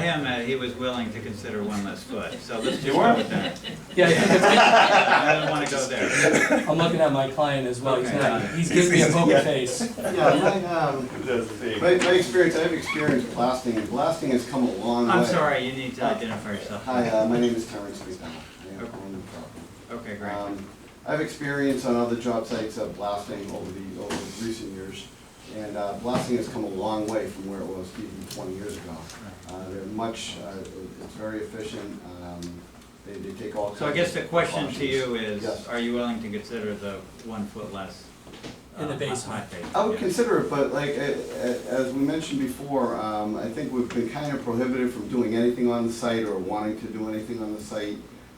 him that he was willing to consider one less foot, so let's just You go were? with that. Yeah, I think it's- I don't wanna go there. I'm looking at my client as well, he's Okay. not, he's giving me a poker face. Yeah, my, um, That's the thing. my, my experience, I've experienced blasting, and blasting has come a long way. I'm sorry, you need to identify yourself. Hi, uh, my name is Terrence McDonald. I am from the property. Okay, great. Um, I've experienced on other job sites of blasting over the, over the recent years, and uh, blasting has come a long way from where it was even twenty years ago. Uh, They're much, uh, it- it's very efficient, um, they, they take all. So I guess the question to you is, Yes. are you willing to consider the one foot less? In the uh, basement. hot base? I would Yeah. consider it, but like, a- a- as we mentioned before, um, I think we've been kind of prohibited from doing anything on the site or wanting to do anything on the site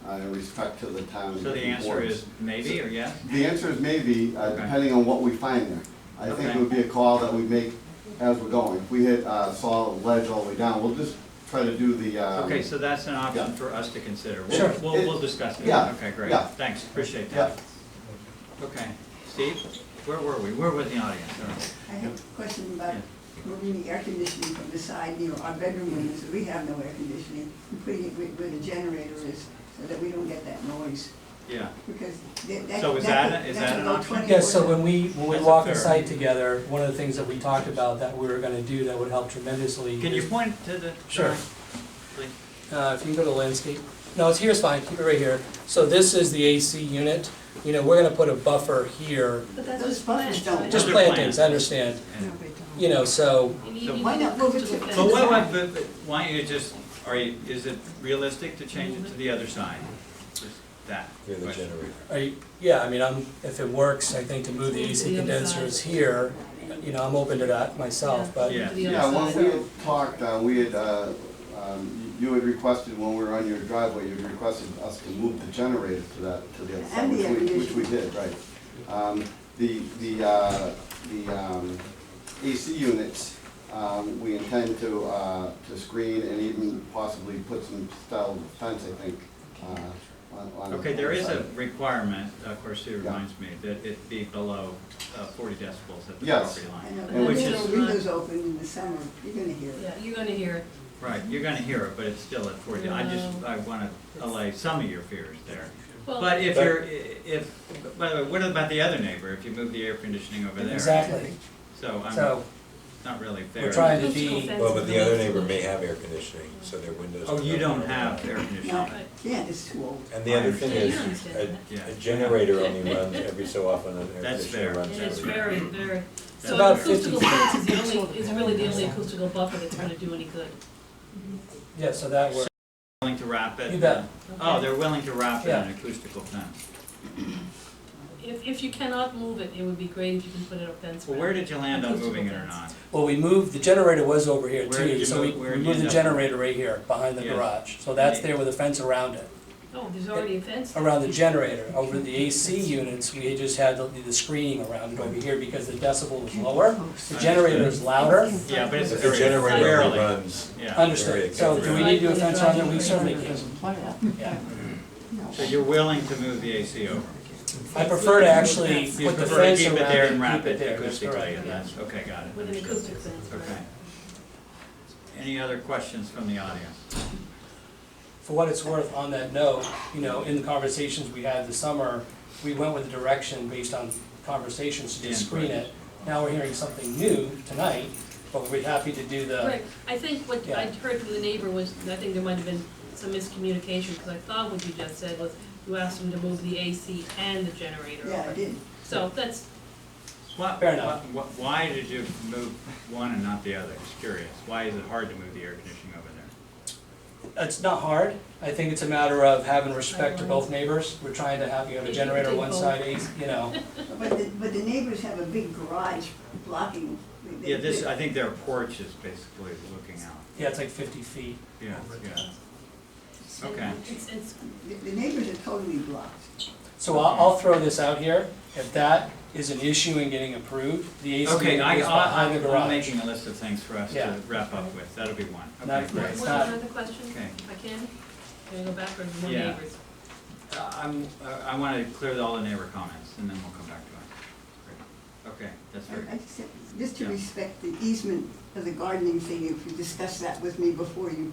uh, in respect to the town. So the answer boards. is maybe or yes? The answer is maybe, uh, Okay. depending on what we find there. I Okay. think it would be a call that we make as we're going. If we hit, uh, solid ledge all the way down, we'll just try to do the, um. Okay, so that's an option yeah. for us to consider. Sure. We'll, we'll, we'll discuss it. Yeah, Okay, great. yeah. Thanks, appreciate Yeah, that. Okay, Steve, where were we? Where was the audience? All right. I have a question about moving the air conditioning from the side near our bedroom windows, we have no air conditioning, and putting it where- where the generator is, so that we don't get that noise, Yeah, because that, that. So is that- is that's that an about option? 20 Yeah, so orders. when we, when we That's walk the fair. site together, one of the things that we talked about that we were gonna do that would help tremendously. can you is- point to the? Sure. Please. Uh, if you can go to landscape, no, it's here's fine, keep it right here. So this is the AC unit, you know, we're gonna put a buffer here, But that's Those just buffers plants, don't right? just Those are plantings, I understand, Yeah. you know, so, You need- So you why need not to move it just to- fence But what, it. what, but, but why don't you just, are you, is it realistic to change it to the other side? Just That question. are you, yeah, I mean, I'm, if it works, I think to move the AC condensers here, you know, I'm open to that myself, but. Yeah. The other yeah, side. when we had talked, uh, we had, uh, um, you you had requested, when we were on your driveway, you had requested us to move the generator to that, to the other side, And the which air we, which we did, right. Um, the, the, uh, the, um, AC units, um, we intend to, uh, to screen and even possibly put some style of fence, I think, uh, on, on. the Okay, there is a side. requirement, of course, it Yeah. reminds me, that it be below uh, forty decibels at the Yes. property I line. know, And when which the is- windows open in the summer, you're gonna hear it. Yeah, you're gonna hear it. Right, you're gonna hear it, but it's still at forty, I just, I wanna allay some of your fears there. Well, But if you're, if, by the way, what about the other neighbor, if you move the air conditioning over there? Exactly, So I'm so not really fair. we're trying to electrical be, fence Well, but is the other electrical. neighbor may have air conditioning, so their windows. Oh, you are don't not- have air No, conditioning. yeah, it's too old. And the other thing Yeah, you is, understand a- that. Yeah. a generator only runs every so often, an air That's fair. conditioner It is runs. every- very, very, so about an acoustical 50 fence is the only, is really the only acoustical buffer that's gonna do any good. yeah, so that works. Willing to wrap it? You bet. Oh, they're willing to wrap it in Yeah. acoustical fence. If, if you cannot move it, it would be great if you can put it up fence. Well, where around. did you land on Acoustical moving it or fence. not? Well, we moved, the generator was over here Where did too, you so we move- where we did you moved the end up? generator right here, behind the Yes. garage. So that's there with a fence around it, Oh, there's already a fence. around the generator. Over the AC units, we just had the- the screening around it over here because the decibel was lower. The generator is louder. Yeah, but it's But the very generator only rarely, runs, yeah. Understood. So do we need to do a fence around it? We certainly can. Yeah. So you're willing to move the AC over? I prefer to actually You put the prefer to fence keep it around there and it and wrap keep it it there. That's acoustically, correct. and that's, okay, got it. With an acoustic fence, Okay. right. Any other questions from the audience? For what it's worth, on that note, you know, in the conversations we had this summer, we went with a direction based on conversations to just Yeah. screen it. Now we're hearing something new tonight, but we're happy to do the, Right, I think what I heard from the neighbor was, I think there might have been some miscommunication, because I thought what you just said was, you asked him to move the AC and the generator Yeah, I over. did. So that's, Why- Fair enough. why- Why did you move one and not the other? Just curious. Why is it hard to move the air conditioning over there? it's not hard. I think it's a matter of having respect to both neighbors. We're trying to have, you have a generator on one side, AC, you know. But the, but the neighbors have a big garage blocking. the- Yeah, this, the- I think their porch is basically looking out. Yeah, it's like fifty feet. Yeah, yeah. Okay. it's, it's The the neighbors are totally blocked. So I'll, I'll throw this out here. If that is an issue in getting approved, the AC is Okay, I, behind I, the I'm garage. making a list of things for us Yeah. to wrap up with. That'll be one. Okay, Not- great. It's One not- other question, if Okay. I can? Can I go backwards, more Yeah. neighbors? Uh, I'm, uh, I want to clear all the neighbor comments and then we'll come back to it. Great. Okay, that's very I- I good. just- Just to Yeah. respect the easement of the gardening thing, if you discussed that with me before you